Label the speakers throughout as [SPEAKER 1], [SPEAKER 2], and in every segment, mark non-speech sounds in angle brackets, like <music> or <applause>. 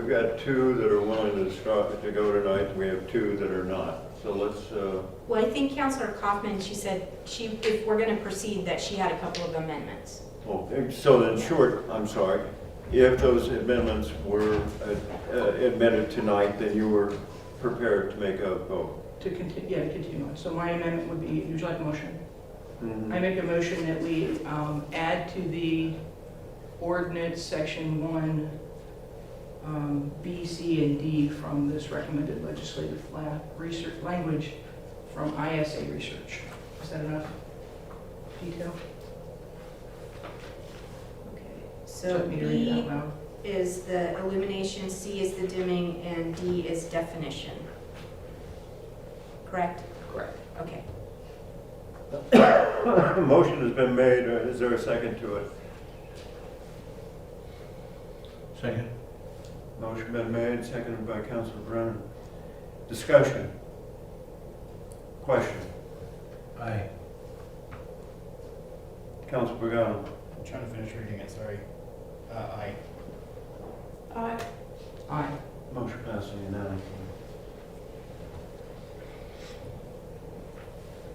[SPEAKER 1] got two that are willing to start, to go tonight, we have two that are not. So let's, uh,
[SPEAKER 2] Well, I think Counselor Kaufman, she said she, if we're going to proceed, that she had a couple of amendments.
[SPEAKER 1] well, so in short, I'm sorry, if those amendments were uh, uh, admitted tonight, then you were prepared to make a vote.
[SPEAKER 3] To continue, yeah, to continue on. So my amendment would be, would you like a motion?
[SPEAKER 1] Mhm.
[SPEAKER 3] I make a motion that we um, add to the ordinance section one, um, B, C, and D from this recommended legislative la- research, language from ISA research. Is that enough detail?
[SPEAKER 2] Okay.
[SPEAKER 3] Do
[SPEAKER 2] So
[SPEAKER 3] you want me to read it out
[SPEAKER 2] B
[SPEAKER 3] loud?
[SPEAKER 2] is the illumination, C is the dimming, and D is definition. Correct?
[SPEAKER 3] Correct.
[SPEAKER 2] Okay.
[SPEAKER 1] <laughs> Motion has been made, Uh, is there a second to it?
[SPEAKER 4] Second.
[SPEAKER 1] Motion been made, seconded by Councilor Brennan. Discussion? Question?
[SPEAKER 4] Aye.
[SPEAKER 1] Councilor Pagano?
[SPEAKER 5] I'm trying to finish reading it, sorry. Uh, I,
[SPEAKER 3] Aye.
[SPEAKER 1] Motion passing unanimously.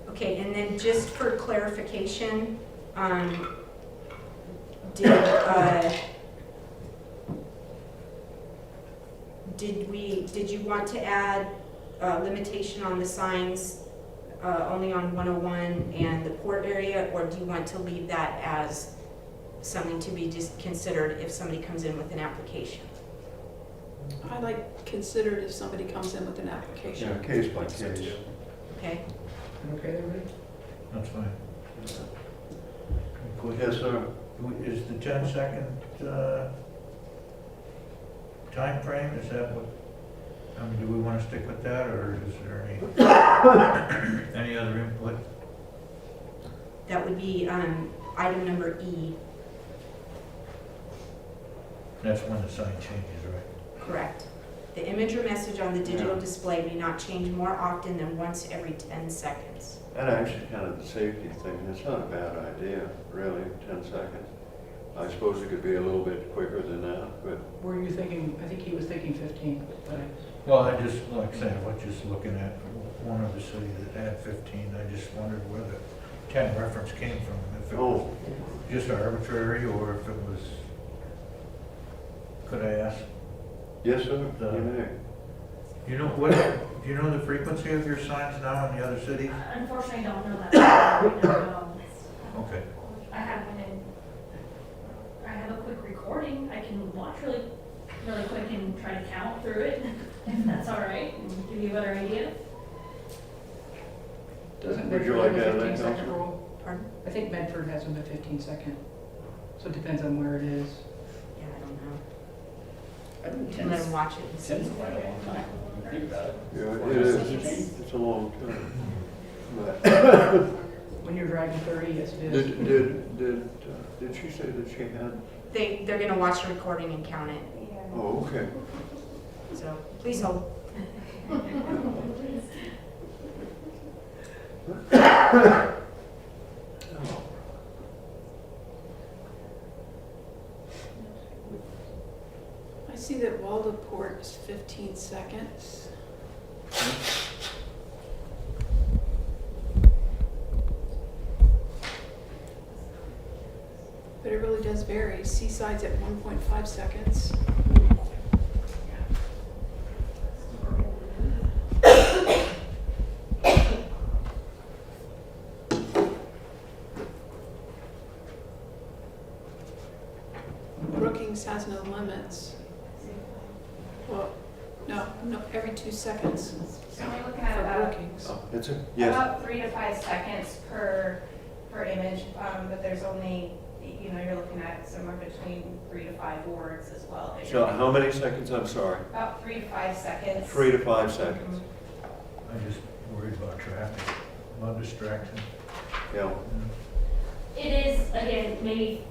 [SPEAKER 2] Okay, and then just for clarification, um, did, uh, did we, did you want to add uh, limitation on the signs uh, only on 101 and the port area? Or do you want to leave that as something to be just considered if somebody comes in with an application?
[SPEAKER 6] I like considered if somebody comes in with an
[SPEAKER 1] Yeah,
[SPEAKER 6] application.
[SPEAKER 1] case by
[SPEAKER 5] I think so
[SPEAKER 1] case.
[SPEAKER 5] too.
[SPEAKER 2] Okay?
[SPEAKER 3] Okay, everybody?
[SPEAKER 4] That's fine. Good.
[SPEAKER 1] Yes, sir.
[SPEAKER 4] W- Is the ten second, uh, timeframe, is that what, I mean, do we wanna stick with that, or is there any, any other input?
[SPEAKER 2] That would be um, item number E,
[SPEAKER 4] That's when the sign changes, right?
[SPEAKER 2] correct? The image or message on the digital
[SPEAKER 1] Yeah.
[SPEAKER 2] display may not change more often than once every 10 seconds.
[SPEAKER 1] And actually, kind of the safety thing, it's not a bad idea, really, 10 seconds. I suppose it could be a little bit quicker than that, but
[SPEAKER 3] Were you thinking, I think he was thinking 15, but I-
[SPEAKER 4] Well, I just, like I said, I was just looking at one other city that had fifteen, I just wondered where the ten reference came from, if it was
[SPEAKER 1] oh,
[SPEAKER 4] just arbitrary, or if it was, could I ask
[SPEAKER 1] yes, sir,
[SPEAKER 4] The-
[SPEAKER 1] you may.
[SPEAKER 4] You know what, do you know the frequency of your signs now in the other cities?
[SPEAKER 7] Unfortunately, I don't know that. <coughs> I don't know.
[SPEAKER 4] Okay.
[SPEAKER 7] I have one in, I have a quick recording, I can watch really, really quick and try to count through it, <laughs> if that's all right, and give you a better idea.
[SPEAKER 3] doesn't
[SPEAKER 1] Would you
[SPEAKER 3] Medford
[SPEAKER 1] like to add
[SPEAKER 3] have a
[SPEAKER 1] that,
[SPEAKER 3] 15 second
[SPEAKER 1] Counselor?
[SPEAKER 3] rule?
[SPEAKER 2] Pardon?
[SPEAKER 3] I think Medford has a 15 second, so it depends on where it is.
[SPEAKER 2] Yeah, I don't know.
[SPEAKER 5] I think
[SPEAKER 2] You let them
[SPEAKER 5] ten's,
[SPEAKER 2] watch it and
[SPEAKER 5] ten's
[SPEAKER 2] see.
[SPEAKER 5] quite a long time, when you think about it.
[SPEAKER 1] Yeah,
[SPEAKER 5] Four
[SPEAKER 1] it
[SPEAKER 5] years.
[SPEAKER 1] is, it's a long time. But
[SPEAKER 3] When you're driving 30, yes it is.
[SPEAKER 1] Did, did, did, uh, did she say that she had,
[SPEAKER 2] They, they're gonna watch the recording and count it,
[SPEAKER 1] oh, okay.
[SPEAKER 2] so please hold.
[SPEAKER 6] I see that Waldeport is 15 seconds. But it really does vary. Seaside's at 1.5 seconds. <coughs> Brookings has no limits. Well, no, no, every two seconds
[SPEAKER 8] So we're looking
[SPEAKER 7] Uh,
[SPEAKER 8] at
[SPEAKER 6] for
[SPEAKER 8] about,
[SPEAKER 6] Brookings.
[SPEAKER 1] Oh, It's a, yes,
[SPEAKER 8] about three to five seconds per, per image, um, but there's only, you know, you're looking at somewhere between three to five words as well. that
[SPEAKER 1] so
[SPEAKER 8] you're-
[SPEAKER 1] how many seconds, I'm sorry?
[SPEAKER 8] About three to five seconds.
[SPEAKER 1] Three to five seconds,
[SPEAKER 8] Mhm.
[SPEAKER 4] I just worried about traffic, about distraction.
[SPEAKER 1] yeah.
[SPEAKER 7] It is, again, maybe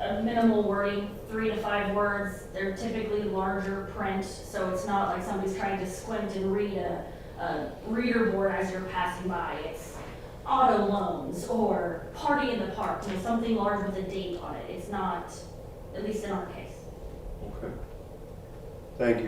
[SPEAKER 7] a minimal wording, three to five words. They're typically larger print, so it's not like somebody's trying to squint and read a, a reader board as you're passing by. It's auto loans or party in the park, you know, something large with a date on it. It's not, at least in our case.
[SPEAKER 1] Okay. Thank you.